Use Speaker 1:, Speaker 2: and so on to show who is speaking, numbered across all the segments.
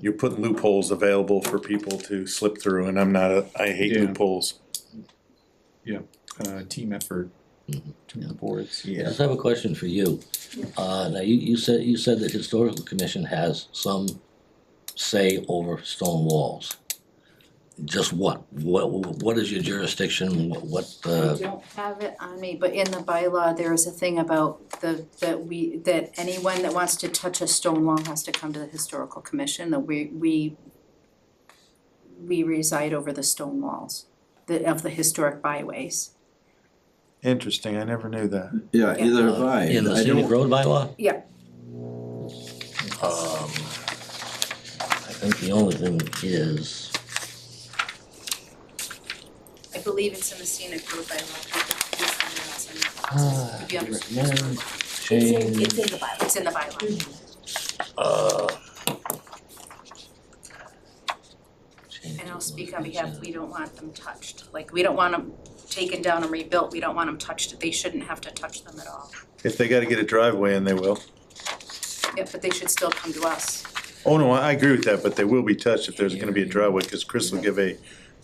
Speaker 1: you put loopholes available for people to slip through, and I'm not, a- I hate
Speaker 2: Yeah.
Speaker 1: loopholes.
Speaker 2: uh, team effort
Speaker 3: Mhm.
Speaker 2: between the boards.
Speaker 3: I just have a question for you. Uh, now, you, you said, you said that historical commission has some say over stone walls. Just what? What, what is your jurisdiction? What, what,
Speaker 4: I
Speaker 3: uh,
Speaker 4: don't have it on me, but in the bylaw, there is a thing about the, that we, that anyone that wants to touch a stone wall has to come to the historical commission, that we, we we reside over the stone walls, the, of the historic byways.
Speaker 1: Interesting, I never knew that.
Speaker 5: Yeah,
Speaker 4: Yeah.
Speaker 5: either have I.
Speaker 3: in the
Speaker 5: I
Speaker 3: scenic
Speaker 5: don't-
Speaker 3: road bylaw?
Speaker 4: Yeah,
Speaker 3: Um, I think the only thing is,
Speaker 4: I believe it's in the scenic road bylaw.
Speaker 3: ah,
Speaker 4: If you understand.
Speaker 3: recommend change,
Speaker 4: the bylaw. It's in the bylaw.
Speaker 3: uh.
Speaker 4: And I'll speak on behalf, we don't want them touched, like, we don't want them taken down and rebuilt, we don't want them touched, they shouldn't have to touch them at all.
Speaker 1: If they gotta get a driveway in, they will.
Speaker 4: Yeah, but they should still come to us.
Speaker 1: Oh, no, I I agree with that, but they will be touched if there's gonna be a driveway, cause Chris will give a,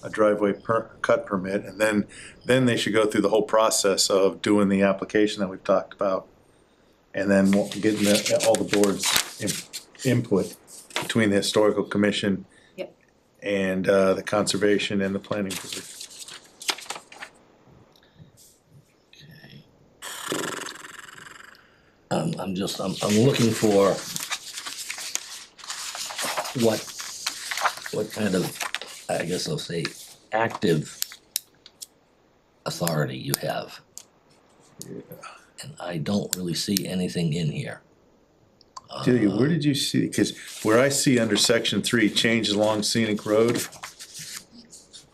Speaker 1: a driveway per, cut permit, and then, then they should go through the whole process of doing the application that we've talked about. And then wa- getting the, all the boards' im- input between the historical commission.
Speaker 4: Yep.
Speaker 1: And, uh, the conservation and the planning board.
Speaker 3: I'm, I'm just, I'm, I'm looking for what, what kind of, I guess I'll say, active authority you have. And I don't really see anything in here.
Speaker 1: Delia,
Speaker 3: Uh,
Speaker 1: where did you see, cause where I see under section three, changes along scenic road.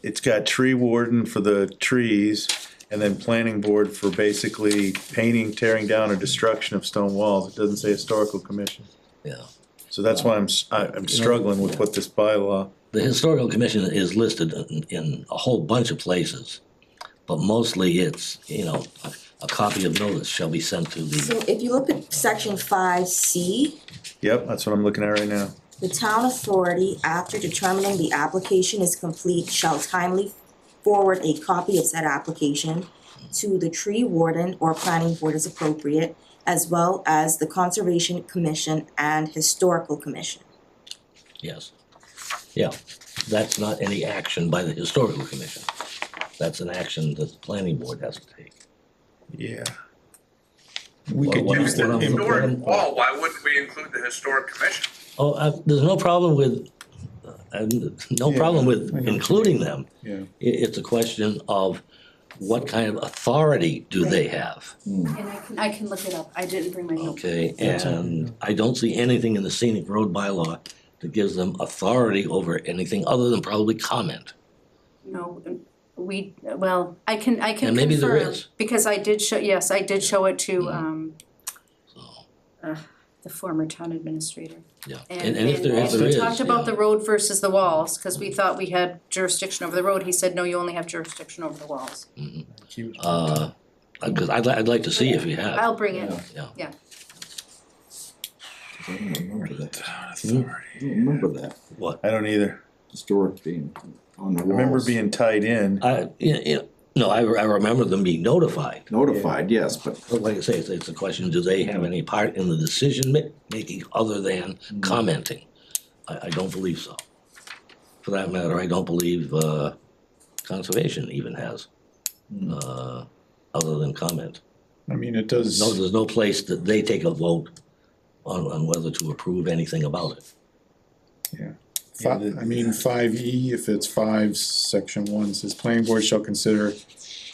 Speaker 1: It's got tree warden for the trees and then planning board for basically painting, tearing down or destruction of stone walls. It doesn't say historical commission.
Speaker 3: Yeah,
Speaker 1: So that's why I'm, s- I- I'm struggling with what this bylaw,
Speaker 3: the historical commission is listed in, in a whole bunch of places, but mostly it's, you know, a, a copy of notice shall be sent to the,
Speaker 6: So if you look at section five C,
Speaker 1: yep, that's what I'm looking at right now.
Speaker 6: the town authority, after determining the application is complete, shall timely forward a copy of said application to the tree warden or planning board as appropriate, as well as the conservation commission and historical commission.
Speaker 3: yes. Yeah, that's not any action by the historical commission. That's an action that the planning board has to take.
Speaker 1: Yeah.
Speaker 2: We could
Speaker 3: Well,
Speaker 2: use
Speaker 3: what
Speaker 2: the,
Speaker 3: I'm-
Speaker 2: if-
Speaker 3: what
Speaker 7: historic
Speaker 3: I'm-
Speaker 7: wall, Oh, why wouldn't we include the historic commission?
Speaker 3: Oh, uh, there's no problem with, uh, no problem with
Speaker 2: I know.
Speaker 3: including them.
Speaker 2: yeah,
Speaker 3: I- it's a question of what kind of authority do they have?
Speaker 4: And I can, I can look it up, I didn't bring my notebook.
Speaker 3: Okay,
Speaker 2: That's all,
Speaker 3: and I don't see anything in the scenic road bylaw that gives them authority over anything other than probably comment.
Speaker 4: No, we, well, I can, I can confirm.
Speaker 3: And maybe there is.
Speaker 4: Because I did show, yes, I did show it to,
Speaker 3: Mhm.
Speaker 4: um, uh,
Speaker 3: So,
Speaker 4: the former town administrator.
Speaker 3: yeah, and,
Speaker 4: And,
Speaker 3: and if there, if
Speaker 4: and
Speaker 3: there
Speaker 4: we
Speaker 3: is,
Speaker 4: talked about
Speaker 3: yeah.
Speaker 4: the road versus the walls, cause we thought we had jurisdiction over the road, he said, no, you only have jurisdiction over the walls.
Speaker 3: Mhm. Uh, because I'd, li- I'd like to see if you have,
Speaker 4: I'll bring it,
Speaker 3: yeah.
Speaker 5: I don't remember that.
Speaker 1: Authority.
Speaker 5: I don't remember that,
Speaker 3: What?
Speaker 1: I don't either.
Speaker 5: historic being on the
Speaker 1: I remember
Speaker 5: walls.
Speaker 1: being tied in.
Speaker 2: Uh,
Speaker 3: I, yeah, yeah, no, I, re- I remember them being notified.
Speaker 5: Notified, yes, but
Speaker 3: But like I say, it's, it's a question, do they have any part in the decision ma- making other than
Speaker 5: Mm-hmm.
Speaker 3: commenting? I, I don't believe so. For that matter, I don't believe, uh, conservation even has, uh, other than comment.
Speaker 2: I mean, it
Speaker 3: No,
Speaker 2: does,
Speaker 3: there's no place that they take a vote on, on whether to approve anything about it.
Speaker 2: fi- I mean, five E, if it's five, section one says, planning board shall consider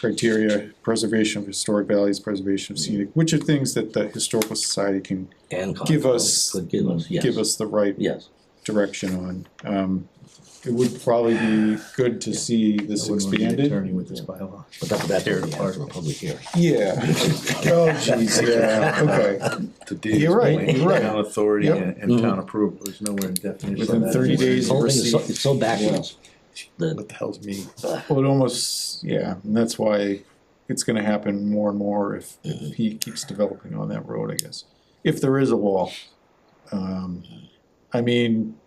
Speaker 2: criteria, preservation of historic values, preservation of scenic, which are things that the historical society can
Speaker 3: And. con-
Speaker 2: Give us-
Speaker 3: Could give us, yes.
Speaker 2: give us the right
Speaker 3: Yes,
Speaker 2: direction on. Um, it would probably be good to see this
Speaker 1: I wouldn't wanna be an
Speaker 2: expanded.
Speaker 1: Attorney with this bylaw.
Speaker 3: but that, that's
Speaker 1: Tear it
Speaker 3: only
Speaker 1: apart.
Speaker 3: after a public hearing.
Speaker 2: Yeah. Oh, jeez, yeah, okay.
Speaker 1: The deed
Speaker 2: You're right,
Speaker 1: explaining
Speaker 2: you're right.
Speaker 1: Town authority
Speaker 2: Yep.
Speaker 1: and, and town
Speaker 3: Mhm.
Speaker 1: approval, there's nowhere in definition.
Speaker 2: Within
Speaker 1: that
Speaker 2: 30
Speaker 1: anywhere.
Speaker 3: The
Speaker 2: days.
Speaker 3: whole thing is so,
Speaker 2: Receive.
Speaker 3: it's so backwards. that-
Speaker 1: What the hell's me?
Speaker 2: Well, it almost, yeah, and that's why it's gonna happen more and more if, if he keeps developing on that road, I guess. If there is a wall. Um, I mean,